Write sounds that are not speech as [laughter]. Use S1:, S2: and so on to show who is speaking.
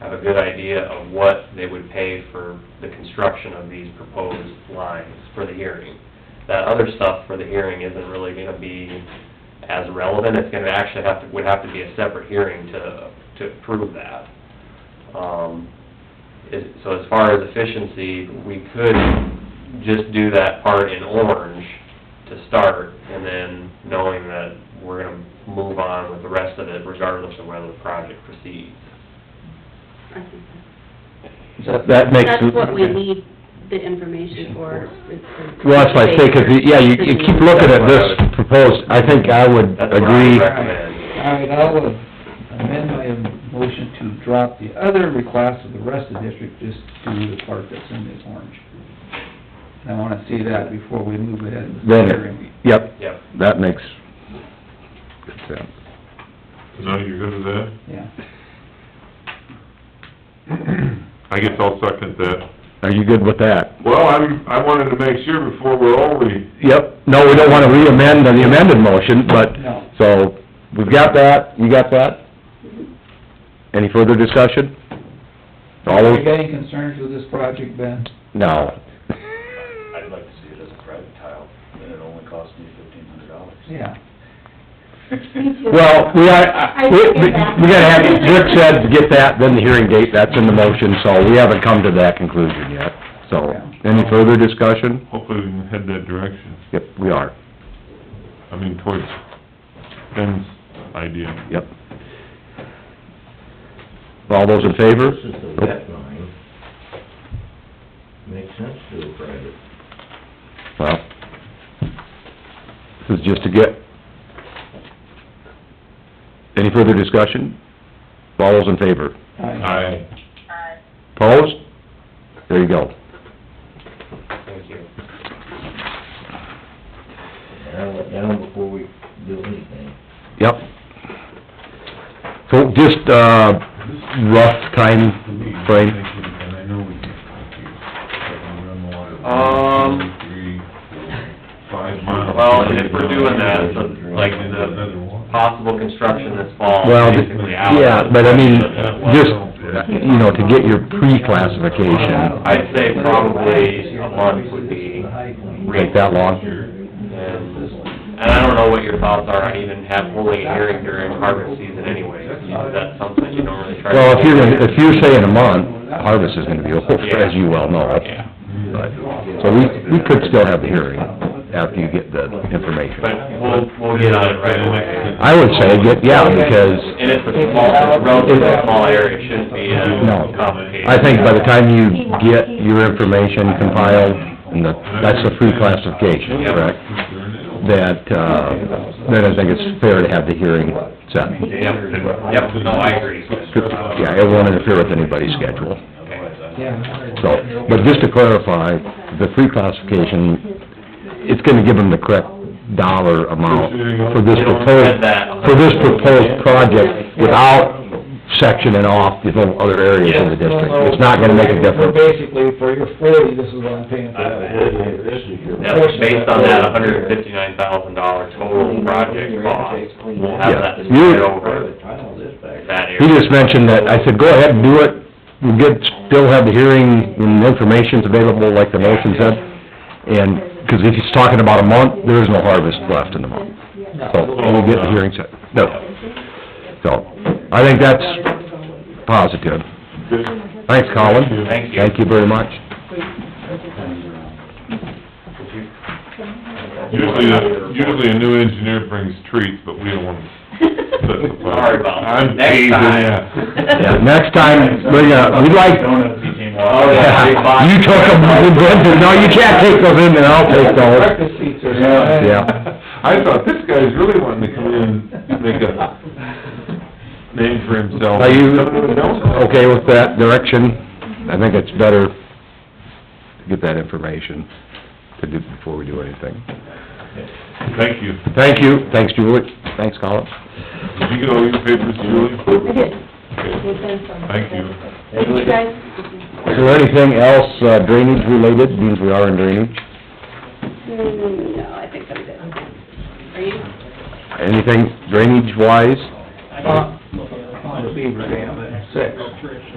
S1: have a good idea of what they would pay for the construction of these proposed lines for the hearing. That other stuff for the hearing isn't really gonna be as relevant, it's gonna actually have to, would have to be a separate hearing to, to approve that. Um, is, so as far as efficiency, we could just do that part in orange to start, and then knowing that we're gonna move on with the rest of it regardless of whether the project proceeds.
S2: I think that's-
S3: That that makes...
S2: That's what we need the information for. is the-
S3: Well, that's my thing, 'cause, yeah, you, you keep looking at this proposed, I think I would
S1: That's what I
S3: agree,
S1: would recommend.
S4: All right, I'll uh, amend my motion to drop the other request of the rest of the district, just to the part that's in this orange. And I wanna see that before we move ahead with the
S3: then,
S4: hearing.
S3: yep,
S1: Yep,
S3: that makes good sense.
S5: No, you're good with that?
S4: Yeah.
S5: I guess I'll second that.
S3: Are you good with that?
S5: Well, I'm, I wanted to make sure before we're over, we-
S3: Yep, no, we don't wanna re-amend the amended motion, but,
S4: No.
S3: so, we've got that, you got that? Any further discussion? All
S4: Are
S3: those,
S4: you getting concerns with this project, Ben?
S3: no.
S6: I'd like to see it as a private tile, and it only cost me fifteen hundred dollars.
S4: Yeah.
S3: Well, we are, uh, we, we we gotta have, Rick said, get that, then the hearing date, that's in the motion, so we haven't come to that conclusion yet. So, any further discussion?
S5: hopefully we can head that direction.
S3: Yep, we are,
S5: I mean, towards Ben's idea.
S3: yep. All those in favor?
S6: This is the wet line. Makes sense to do a private.
S3: Well, this is just to get... Any further discussion? All those in favor?
S4: Aye.
S5: Aye.
S3: Opposed? There you go.
S1: thank you.
S6: Narrow it down before we do anything.
S3: Yep. So just, uh, rough time frame,
S5: And I know we can't talk to you, but we run the water.
S1: Um,
S5: One, two, Three, four, five miles.
S1: Well, and if we're doing that, so like uh,
S5: And another
S1: the
S5: one.
S1: possible construction this fall,
S3: Well, the-
S1: basically out.
S3: yeah, but I mean,
S1: Well,
S3: just, you know, to get your pre-classification.
S1: I'd say probably a month would be
S3: Take that long?
S1: And and I don't know what your thoughts are on even have, holding a hearing during harvest season anyway. That's something you don't really try to...
S3: Well, if you're, if you're saying a month, harvest is gonna be over, [laughs] as you well know.
S1: Yeah,
S3: But, so we, we could still have the hearing after you get the
S1: but
S3: information.
S1: we'll, we'll get on it right away.
S3: I would say, get, yeah, because,
S1: And it's a small, it's a relatively small area, it shouldn't be uh,
S3: No.
S1: complicated.
S3: I think by the time you get your information compiled, and the- that's the free classification, correct? That, uh, then I think it's fair to have the hearing set.
S1: Yep, yep, no, I agree. Um,
S3: Yeah, it won't interfere with anybody's schedule.
S4: Yeah.
S3: So, but just to clarify, the free classification, it's gonna give them the correct dollar amount for this proposed, for this proposed project without sectioning off the whole other areas in the district. It's not gonna make a
S7: We're
S3: difference.
S7: basically, for your forty, this is what I'm paying for that.
S6: This is your.
S1: That's based on that hundred and fifty-nine thousand dollar total project cost. We'll have that spread over
S6: Private tile this back.
S1: that area.
S3: He just mentioned that, I said, go ahead and do it, we'll get, still have the hearing, and the information's available, like the motion said. And, 'cause if he's talking about a month, there is no harvest left in the month. So, we'll get the hearing set, no. So, I think that's positive. Thanks, Colin.
S1: Thank you.
S3: Thank you very much.
S5: Usually, a- usually a new engineer brings treats, but we don't want to
S1: Sorry about that.
S5: I'm
S1: Next
S5: teasing,
S1: time.
S5: yeah.
S3: Yeah, next time, we're gonna, we'd like,
S6: Donuts became
S1: Oh, yeah, big box.
S3: you took them, no, you can't take those in, there. I'll take those.
S4: Breakfast seats are... [laughs]
S3: Yeah.
S5: I thought this guy's really wanting to come in and make a name for himself.
S3: Are you
S5: Someone else?
S3: okay with that direction? I think it's better to get that information to do, before we do anything.
S5: Thank you.
S3: Thank you, thanks Julie, thanks Colin.
S5: Did you get all your papers, Julie?
S8: I did.
S5: Okay.
S8: We've been from-
S5: Thank you.
S8: Thank you, guys.
S3: Is there anything else uh, drainage related, means we are in drainage?
S2: Mm, No, I think I'm good. Are you?
S3: Anything drainage wise?
S4: Uh, On the beaver dam at six.